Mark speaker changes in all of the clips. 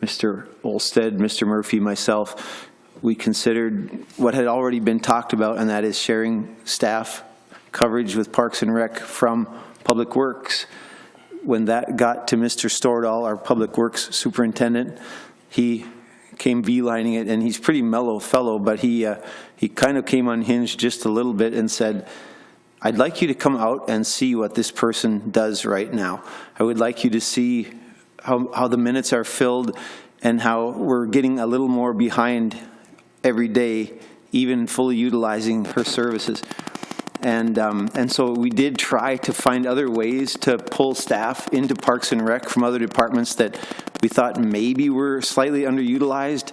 Speaker 1: Mr. Olsted, Mr. Murphy, myself, we considered what had already been talked about, and that is sharing staff coverage with Parks and Rec from Public Works. When that got to Mr. Stordahl, our Public Works Superintendent, he came V-lining it, and he's a pretty mellow fellow, but he, uh, he kind of came unhinged just a little bit and said, I'd like you to come out and see what this person does right now. I would like you to see how, how the minutes are filled and how we're getting a little more behind every day, even fully utilizing her services. And, um, and so we did try to find other ways to pull staff into Parks and Rec from other departments that we thought maybe were slightly underutilized.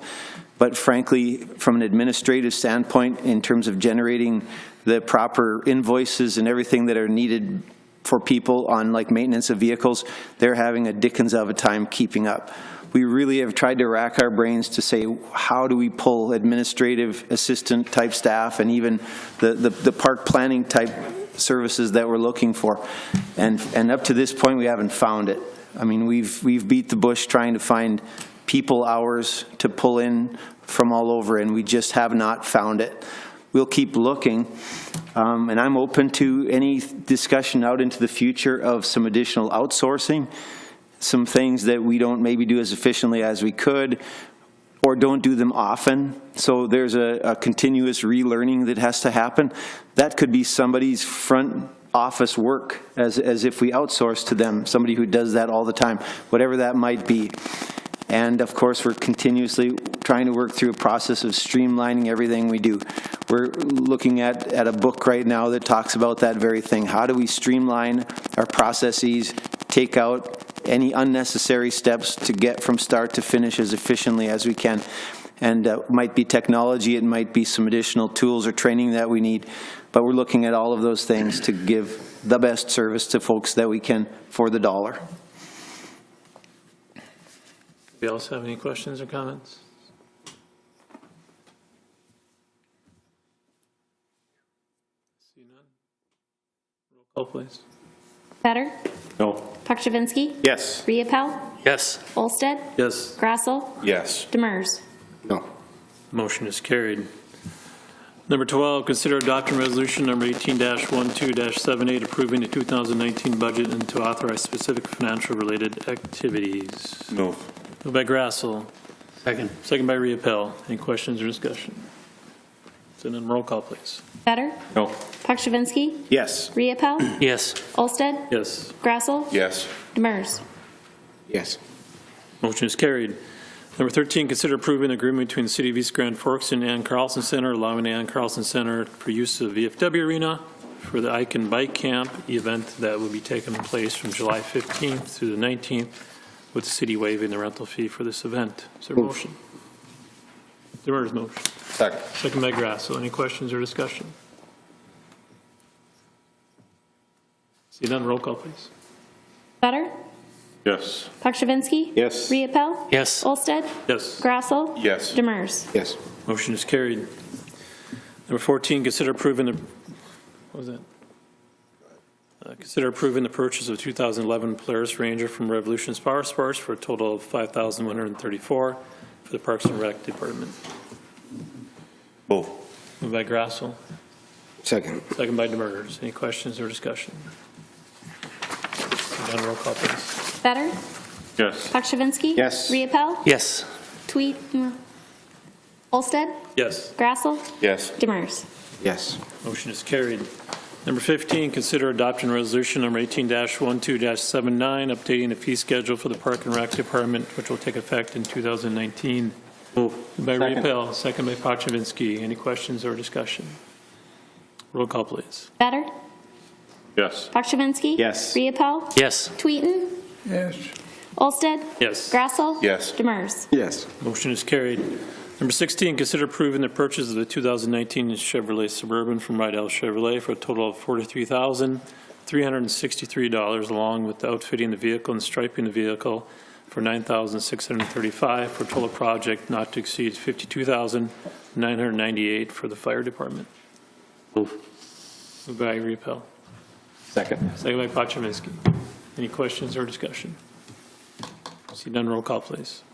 Speaker 1: But frankly, from an administrative standpoint, in terms of generating the proper invoices and everything that are needed for people on like maintenance of vehicles, they're having a dickens of a time keeping up. We really have tried to rack our brains to say, how do we pull administrative assistant type staff and even the, the, the park planning type services that we're looking for? And, and up to this point, we haven't found it. I mean, we've, we've beat the bush trying to find people hours to pull in from all over, and we just have not found it. We'll keep looking, um, and I'm open to any discussion out into the future of some additional outsourcing, some things that we don't maybe do as efficiently as we could, or don't do them often. So there's a, a continuous relearning that has to happen. That could be somebody's front office work, as, as if we outsource to them, somebody who does that all the time, whatever that might be. And of course, we're continuously trying to work through a process of streamlining everything we do. We're looking at, at a book right now that talks about that very thing. How do we streamline our processes, take out any unnecessary steps to get from start to finish as efficiently as we can? And uh, might be technology, it might be some additional tools or training that we need, but we're looking at all of those things to give the best service to folks that we can for the dollar.
Speaker 2: Anybody else have any questions or comments? See none? Roll call, please.
Speaker 3: Better?
Speaker 4: No.
Speaker 3: Pakshavinsky?
Speaker 4: Yes.
Speaker 3: Riepel?
Speaker 4: Yes.
Speaker 3: Olsted?
Speaker 2: Yes,
Speaker 3: Grassel?
Speaker 4: Yes.
Speaker 3: Demers?
Speaker 4: No.
Speaker 2: motion is carried. Number 12, consider adopting resolution number 18-12-78, approving the 2019 budget and to authorize specific financial-related activities.
Speaker 4: Move.
Speaker 2: Moved by Grassel. Second. Second by Riepel. Any questions or discussion? Send in roll call, please.
Speaker 3: Better?
Speaker 4: No.
Speaker 3: Pakshavinsky?
Speaker 4: Yes.
Speaker 3: Riepel?
Speaker 4: Yes.
Speaker 3: Olsted?
Speaker 2: Yes.
Speaker 3: Grassel?
Speaker 4: Yes.
Speaker 3: Demers?
Speaker 4: Yes.
Speaker 2: Motion is carried. Number 13, consider approving an agreement between the City of East Grand Forks and Ann Carlson Center, allowing Ann Carlson Center for use of VFW Arena for the Ike and Bike Camp event that will be taking place from July 15th through the 19th, with the city waiving the rental fee for this event. Is there a motion? Demers motion.
Speaker 4: Second.
Speaker 2: Second by Grasso. Any questions or discussion? See none, roll call, please.
Speaker 3: Better?
Speaker 4: Yes.
Speaker 3: Pakshavinsky?
Speaker 4: Yes.
Speaker 3: Riepel?
Speaker 5: Yes.
Speaker 3: Olsted?
Speaker 2: Yes.
Speaker 3: Grassel?
Speaker 4: Yes.
Speaker 3: Demers?
Speaker 4: Yes.
Speaker 2: Motion is carried. Number 14, consider approving the, what was that? Uh, Consider approving the purchase of 2011 Polaris Ranger from Revolution Power Sports for a total of 5134 for the Parks and Rec Department.
Speaker 4: Move.
Speaker 2: Moved by Grassel,
Speaker 4: Second.
Speaker 2: second by Demers. Any questions or discussion? Seeing none, roll call, please.
Speaker 3: Better?
Speaker 4: Yes.
Speaker 3: Pakshavinsky?
Speaker 4: Yes.
Speaker 3: Riepel?
Speaker 5: Yes.
Speaker 3: Tweet? mm. Olsted?
Speaker 2: Yes.
Speaker 3: Grassel?
Speaker 4: Yes.
Speaker 3: Demers?
Speaker 4: Yes.
Speaker 2: Motion is carried. Number 15, consider adopting resolution number 18-12-79, updating the fee schedule for the Park and Rec Department, which will take effect in 2019. Moved by
Speaker 4: Second.
Speaker 2: Riepel, second by Pachivinsky. Any questions or discussion? Roll call, please.
Speaker 3: Better?
Speaker 4: Yes.
Speaker 3: Pakshavinsky?
Speaker 4: Yes.
Speaker 3: Riepel?
Speaker 5: Yes.
Speaker 3: Tweeten? Yes. Olsted?
Speaker 2: Yes.
Speaker 3: Grassel?
Speaker 4: Yes.
Speaker 3: Demers?
Speaker 4: Yes.
Speaker 2: Motion is carried. Number 16, consider approving the purchase of the 2019 Chevrolet Suburban from Rydell Chevrolet for a total of $43,363, along with outfitting the vehicle and striping the vehicle for $9,635, for a total project not to exceed $52,998 for the fire department.
Speaker 5: Move.
Speaker 2: Moved by Repel,
Speaker 4: Second.
Speaker 2: second by Pachivinsky. Any questions or discussion? See none, roll call, please.